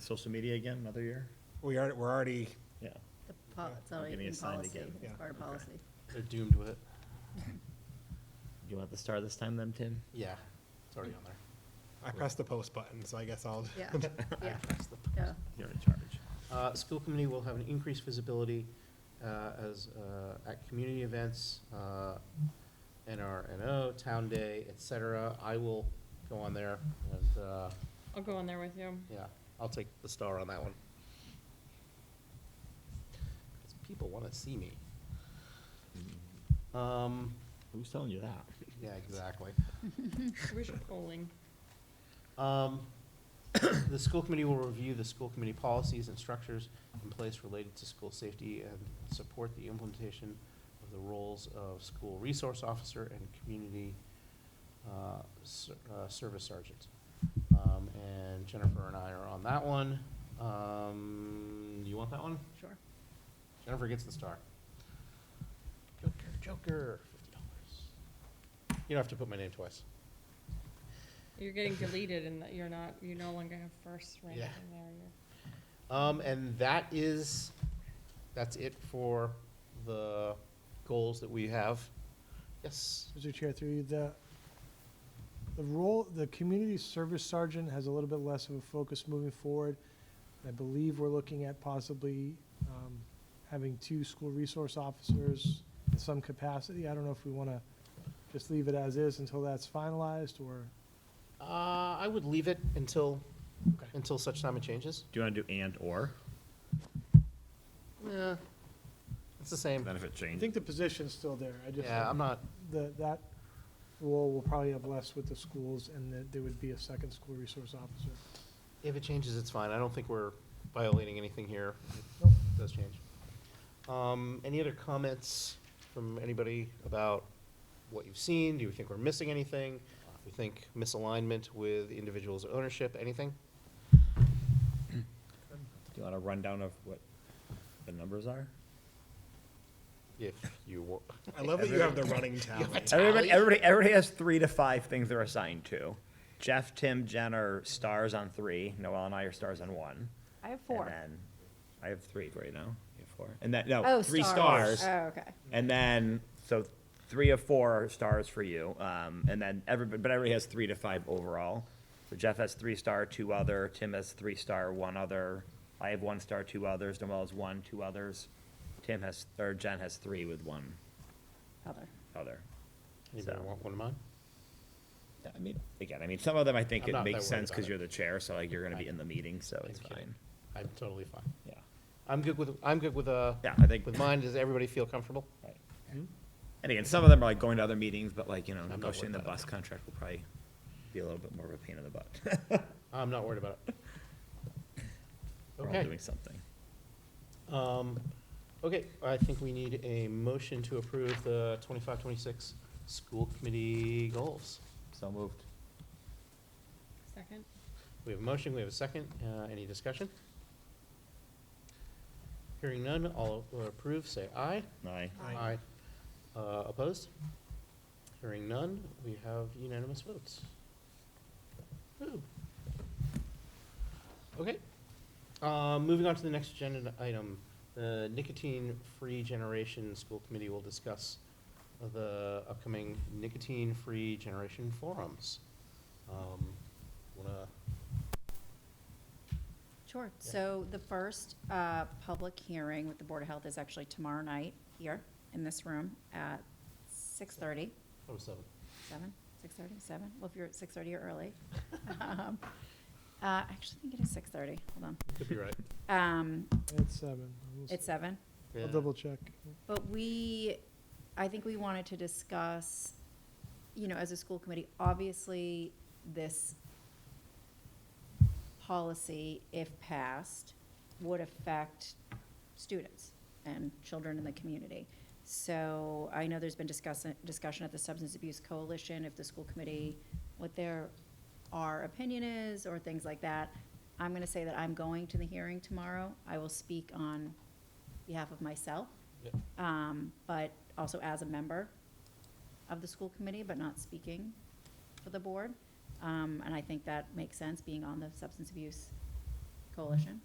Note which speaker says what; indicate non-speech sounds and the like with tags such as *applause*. Speaker 1: social media again another year?
Speaker 2: We are, we're already,
Speaker 1: Yeah.
Speaker 3: The po- It's already
Speaker 1: Getting
Speaker 3: in
Speaker 1: assigned
Speaker 3: policy,
Speaker 1: again.
Speaker 3: it's
Speaker 2: Yeah.
Speaker 3: part of
Speaker 1: Okay.
Speaker 3: policy.
Speaker 4: They're doomed with it.
Speaker 1: You want the star this time then, Tim?
Speaker 4: Yeah, it's already on there.
Speaker 2: I pressed the post button, so I guess I'll. *laughs*
Speaker 3: Yeah,
Speaker 4: I
Speaker 3: yeah,
Speaker 4: pressed the
Speaker 3: yeah.
Speaker 1: You're in charge.
Speaker 4: Uh, School committee will have an increased visibility uh, as, uh, at community events, uh, NRNO, Town Day, et cetera. I will go on there and, uh,
Speaker 5: I'll go on there with you.
Speaker 4: yeah, I'll take the star on that one. 'Cause people want to see me. Um,
Speaker 1: Mm-hmm. Who's telling you that?
Speaker 4: Yeah, exactly.
Speaker 5: We should polling.
Speaker 4: Um, *coughs* The school committee will review the school committee policies and structures in place related to school safety and support the implementation of the roles of school resource officer and community uh, ser- uh, service sergeant. Um, And Jennifer and I are on that one. Um, You want that one?
Speaker 3: sure.
Speaker 4: Jennifer gets the star. Joker, Joker, fifty dollars. You don't have to put my name twice.
Speaker 5: You're getting deleted and that you're not, you no longer have first rank in
Speaker 4: Yeah.
Speaker 5: there. You're-
Speaker 4: Um, and that is, that's it for the goals that we have. Yes,
Speaker 6: Mr. Chair, through you, the, the role, the community service sergeant has a little bit less of a focus moving forward. I believe we're looking at possibly um, having two school resource officers in some capacity. I don't know if we want to just leave it as is until that's finalized, or
Speaker 4: uh, I would leave it until,
Speaker 6: Okay.
Speaker 4: until such time it changes.
Speaker 1: Do you want to do and or?
Speaker 4: Yeah, it's the same.
Speaker 1: Then if it
Speaker 6: I
Speaker 1: changes.
Speaker 6: think the position's still there. I just,
Speaker 4: Yeah, I'm not,
Speaker 6: the, that role will probably have less with the schools, and that there would be a second school resource officer.
Speaker 4: if it changes, it's fine. I don't think we're violating anything here.
Speaker 6: Nope.
Speaker 4: It does change. Um, any other comments from anybody about what you've seen? Do you think we're missing anything? Do you think misalignment with individuals' ownership, anything?
Speaker 1: Do you want a rundown of what the numbers are?
Speaker 4: If you were,
Speaker 2: I love that *laughs* you have the running tally.
Speaker 1: Everybody, everybody, everybody has three to five things they're assigned to. Jeff, Tim, Jen are stars on three. Noel and I are stars on one.
Speaker 7: I have
Speaker 1: And uh,
Speaker 7: four.
Speaker 1: then I have three right now. You have four. And that no,
Speaker 7: Oh,
Speaker 1: three
Speaker 7: stars.
Speaker 1: stars.
Speaker 7: Oh, okay.
Speaker 1: And then so three of four are stars for you. Um, and then everybody, but everybody has three to five overall. So Jeff has three star, two other. Tim has three star, one other. I have one star, two others. Noel has one, two others. Tim has or Jen has three with one
Speaker 7: Other.
Speaker 1: other.
Speaker 4: anybody
Speaker 1: So-
Speaker 4: want one of mine?
Speaker 1: Yeah, I mean, again, I mean, some of them I think
Speaker 4: I'm
Speaker 1: it
Speaker 4: not that
Speaker 1: makes
Speaker 4: worried
Speaker 1: sense
Speaker 4: about
Speaker 1: because
Speaker 4: it.
Speaker 1: you're the chair, so like you're gonna be
Speaker 4: Right.
Speaker 1: in the meeting, so it's
Speaker 4: I'm kidding.
Speaker 1: fine.
Speaker 4: I'm totally fine.
Speaker 1: Yeah,
Speaker 4: I'm good with, I'm good with, uh,
Speaker 1: yeah, I think,
Speaker 4: with mine. Does everybody feel comfortable?
Speaker 1: right. And again, some of them are like going to other meetings, but like, you know,
Speaker 4: Hmm? I'm not worried
Speaker 1: negotiating the
Speaker 4: about
Speaker 1: bus contract will probably be a little bit more of a pain in the butt. *laughs*
Speaker 4: I'm not worried about *laughs* it.
Speaker 1: We're all
Speaker 4: Okay,
Speaker 1: doing something.
Speaker 4: um, okay, I think we need a motion to approve the twenty-five, twenty-six school committee goals.
Speaker 1: So moved.
Speaker 5: Second?
Speaker 4: We have a motion, we have a second, uh, any discussion? Hearing none, all who approve, say aye.
Speaker 1: Aye.
Speaker 4: Aye. Uh, opposed? Hearing none, we have unanimous votes. Woo. Okay, uh, moving on to the next agenda item, the nicotine-free generation school committee will discuss the upcoming nicotine-free generation forums. Um, wanna,
Speaker 7: Sure.
Speaker 4: Yeah.
Speaker 7: So the first uh, public hearing with the Board of Health is actually tomorrow night here in this room at 6:30.
Speaker 4: oh, seven.
Speaker 7: Seven, six thirty, seven? Well, if you're at six thirty, you're early. Um, uh, I actually think it is six thirty, hold
Speaker 4: Could be right.
Speaker 7: on. Um,
Speaker 6: It's seven. We'll s-
Speaker 7: it's seven.
Speaker 4: Yeah.
Speaker 6: *laughs* I'll double check.
Speaker 7: But we, I think we wanted to discuss, you know, as a school committee, obviously, this policy, if passed, would affect students and children in the community. So I know there's been discussion, discussion at the Substance Abuse Coalition, if the school committee, what their, our opinion is, or things like that. I'm gonna say that I'm going to the hearing tomorrow. I will speak on behalf of myself
Speaker 4: Yeah.
Speaker 7: um, but also as a member of the school committee, but not speaking for the board. Um, and I think that makes sense, being on the substance abuse Coalition.